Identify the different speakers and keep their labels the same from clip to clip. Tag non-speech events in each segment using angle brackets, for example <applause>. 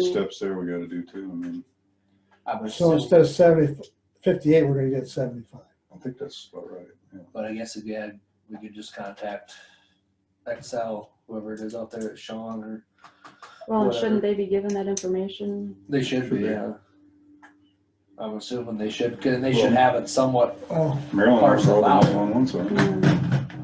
Speaker 1: steps there we gotta do too. I mean,
Speaker 2: I would
Speaker 3: So
Speaker 2: assume,
Speaker 3: instead of 70 58, fifty-eight, we're gonna get seventy-five.
Speaker 1: I think that's about right. yeah.
Speaker 2: but I guess if we had, we could just contact Excel, whoever it is out there, Sean, or,
Speaker 4: Well,
Speaker 2: Whatever.
Speaker 4: shouldn't they be given that information?
Speaker 2: they should be,
Speaker 1: Should be.
Speaker 2: yeah. I'm assuming they should, and they
Speaker 1: Well-
Speaker 2: should have it somewhat,
Speaker 3: Oh,
Speaker 1: Maryland has all
Speaker 2: Parcel
Speaker 1: the
Speaker 2: out.
Speaker 1: on one side.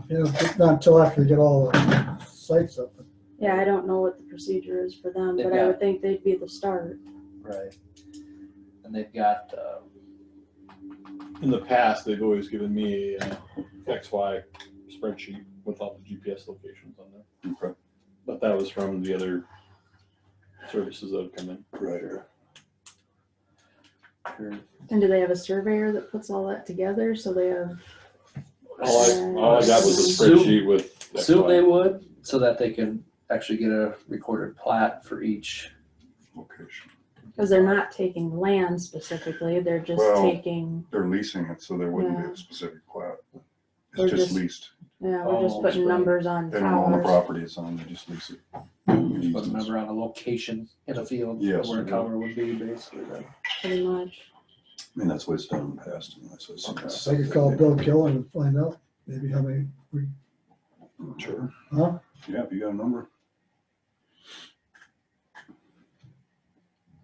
Speaker 4: Yeah,
Speaker 3: you know, but not until after we get all the sites up.
Speaker 4: Yeah, I don't know what the procedure is for them,
Speaker 2: They've
Speaker 4: but I
Speaker 2: got-
Speaker 4: would think they'd be the start.
Speaker 2: right? And they've got, uh,
Speaker 5: In the past, they've always given me a uh, XY spreadsheet with all the GPS locations on there,
Speaker 1: Okay,
Speaker 5: but that was from the other services that have come in.
Speaker 1: Right.
Speaker 2: your-
Speaker 4: And do they have a surveyor that puts all that together? So they have,
Speaker 5: All I, all I got was a
Speaker 2: Zoom-
Speaker 5: spreadsheet with
Speaker 2: assume they
Speaker 5: XY.
Speaker 2: would, so that they can actually get a recorded plat for each.
Speaker 1: Location.
Speaker 4: because they're not taking land specifically, they're just
Speaker 1: Well-
Speaker 4: taking,
Speaker 1: They're leasing it, so there wouldn't be
Speaker 4: Yeah.
Speaker 1: a specific plat.
Speaker 4: Or
Speaker 1: It's just
Speaker 4: just-
Speaker 1: leased.
Speaker 4: yeah, we're
Speaker 2: Oh,
Speaker 4: just putting
Speaker 2: right.
Speaker 4: numbers on
Speaker 1: They don't own the
Speaker 4: towers.
Speaker 1: property, it's on, they just lease it.
Speaker 2: Put a
Speaker 1: Easements.
Speaker 2: number on a location in a field
Speaker 1: Yes,
Speaker 2: where a
Speaker 1: yeah.
Speaker 2: tower would be basically. then.
Speaker 4: Pretty much.
Speaker 1: I mean, that's what it's done in the past. and that's what it's-
Speaker 3: I could call Bill Killen and find out maybe how many, we-
Speaker 1: Sure,
Speaker 3: huh?
Speaker 1: yeah, if you got a number.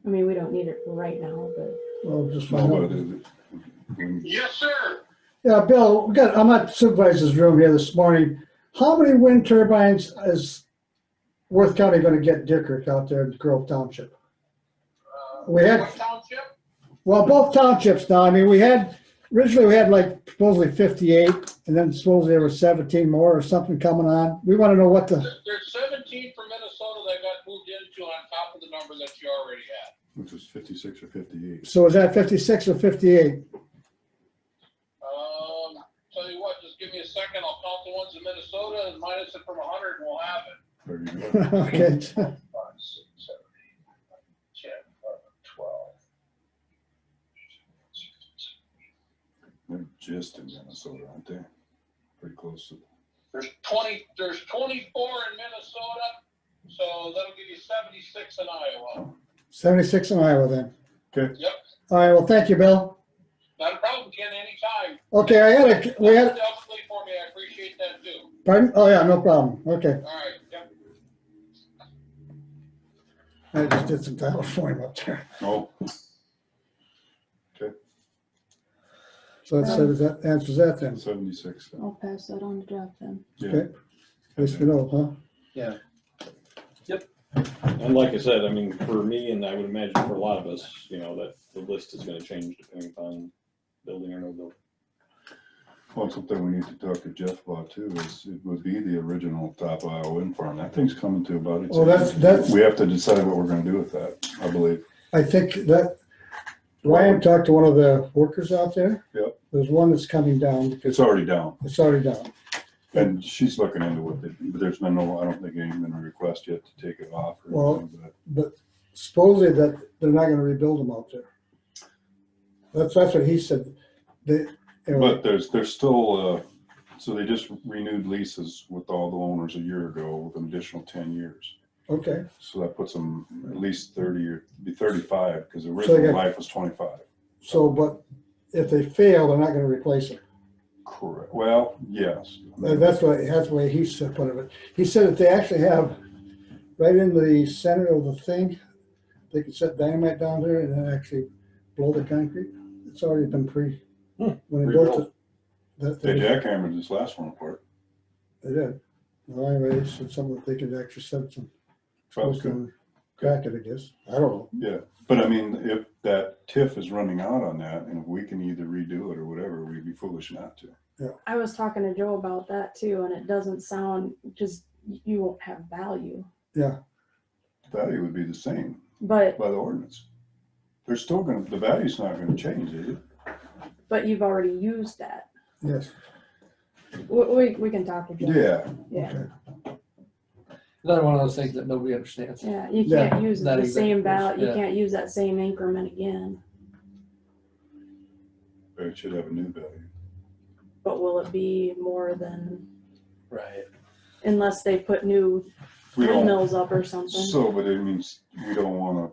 Speaker 4: I mean, we don't need it right now, but
Speaker 3: Well, just
Speaker 1: No,
Speaker 3: find
Speaker 1: but
Speaker 3: out.
Speaker 1: it- it-
Speaker 6: Yes, sir.
Speaker 3: Yeah, Bill, we got, I'm at supervisor's room here this morning. How many wind turbines is Worth County gonna get Dickert out there in Grove Township?
Speaker 6: Uh,
Speaker 3: We had-
Speaker 6: what Township?
Speaker 3: Well, both townships now, I mean, we had, originally we had like supposedly fifty-eight, and then supposedly there was seventeen more or something coming on. We wanna know what the,
Speaker 6: There- There's 17 from Minnesota that got moved into on top of the number that you already had.
Speaker 1: Which was fifty-six or fifty-eight.
Speaker 3: so is that fifty-six or fifty-eight? <laughs>
Speaker 6: Um, tell you what, just give me a second. I'll count the ones in Minnesota and minus it from 100 and we'll have it.
Speaker 1: There you
Speaker 3: <laughs>
Speaker 1: go.
Speaker 3: Okay,
Speaker 6: Five, six, seven, eight, nine, 10, 11, 12.
Speaker 1: They're just in Minnesota, aren't they? Pretty close to.
Speaker 6: There's 20, there's 24 in Minnesota, so that'll give you 76 in Iowa.
Speaker 3: seventy-six in Iowa then.
Speaker 6: Yep,
Speaker 3: All right, well, thank you, Bill.
Speaker 6: not a problem, Ken, anytime.
Speaker 3: Okay, I had a, we had,
Speaker 6: Definitely for me, I appreciate that too.
Speaker 3: pardon? Oh, yeah, no problem. Okay,
Speaker 6: All right, yep.
Speaker 3: I just did some title for him up there.
Speaker 1: Oh,
Speaker 3: So that says, that answers that then.
Speaker 1: seventy-six. then.
Speaker 4: I'll pass that on to Jeff then.
Speaker 1: Yeah.
Speaker 3: Okay. Nice to know, huh?
Speaker 5: And like I said, I mean, for me, and I would imagine for a lot of us, you know, that the list is gonna change depending upon building or no building.
Speaker 1: Well, something we need to talk to Jeff about too is it would be the original top Iowa wind farm. That thing's coming to about its.
Speaker 3: Well, that's-
Speaker 1: end.
Speaker 3: that's-
Speaker 1: We have to decide what we're gonna do with that, I believe.
Speaker 3: I think that Ryan talked to one of the workers out there.
Speaker 1: Yep.
Speaker 3: There's one that's coming down.
Speaker 1: It's already down
Speaker 3: It's already down.
Speaker 1: and she's looking into it, but there's been no, I don't think any been a request yet to take it off.
Speaker 3: Well-
Speaker 1: or anything, but
Speaker 3: But supposedly that they're not gonna rebuild them out there. That's, that's what he said. They, anyway,
Speaker 1: But there's, there's still, uh, so they just renewed leases with all the owners a year ago with an additional ten years.
Speaker 3: okay,
Speaker 1: So that puts them at least thirty or, be thirty-five, because the
Speaker 3: So they
Speaker 1: original
Speaker 3: got-
Speaker 1: life was twenty-five.
Speaker 3: so, but if they fail, they're not gonna replace them.
Speaker 1: Correct. Well, yes.
Speaker 3: That- That's what, that's the way he said, put it. He said that they actually have, right in the center of the thing, they could set dynamite down there and then actually blow the concrete. It's already been pre,
Speaker 5: Hmm,
Speaker 3: when they built it. that
Speaker 5: pre-built.
Speaker 1: They jackhammered this last one apart.
Speaker 3: They did. Well, anyway, it's it's something that they could actually set some,
Speaker 1: Trump's good.
Speaker 3: crack it, I guess. I don't know.
Speaker 1: Yeah, but I mean, if that TIF is running out on that and if we can either redo it or whatever, we'd be foolish not to.
Speaker 4: I was talking to Joe about that too, and it doesn't sound, just, you won't have value,
Speaker 1: Value would be the same
Speaker 4: but
Speaker 1: by the ordinance. They're still gonna, the value's not gonna change, is it?
Speaker 4: But you've already used that.
Speaker 3: Yes.
Speaker 4: We, we, we can talk again.
Speaker 1: Yeah,
Speaker 4: Yeah,
Speaker 3: okay.
Speaker 2: Another one of those things that nobody understands.
Speaker 4: yeah, you
Speaker 3: Yeah.
Speaker 4: can't use
Speaker 2: Not
Speaker 4: the same
Speaker 2: exactly,
Speaker 4: value, you
Speaker 2: yeah.
Speaker 4: can't use that same increment again,
Speaker 1: but it should have a new value.
Speaker 4: but will it be more than,
Speaker 2: Right.
Speaker 4: unless they put new
Speaker 1: We don't,
Speaker 4: windmills up or something?
Speaker 1: so, but it means we don't wanna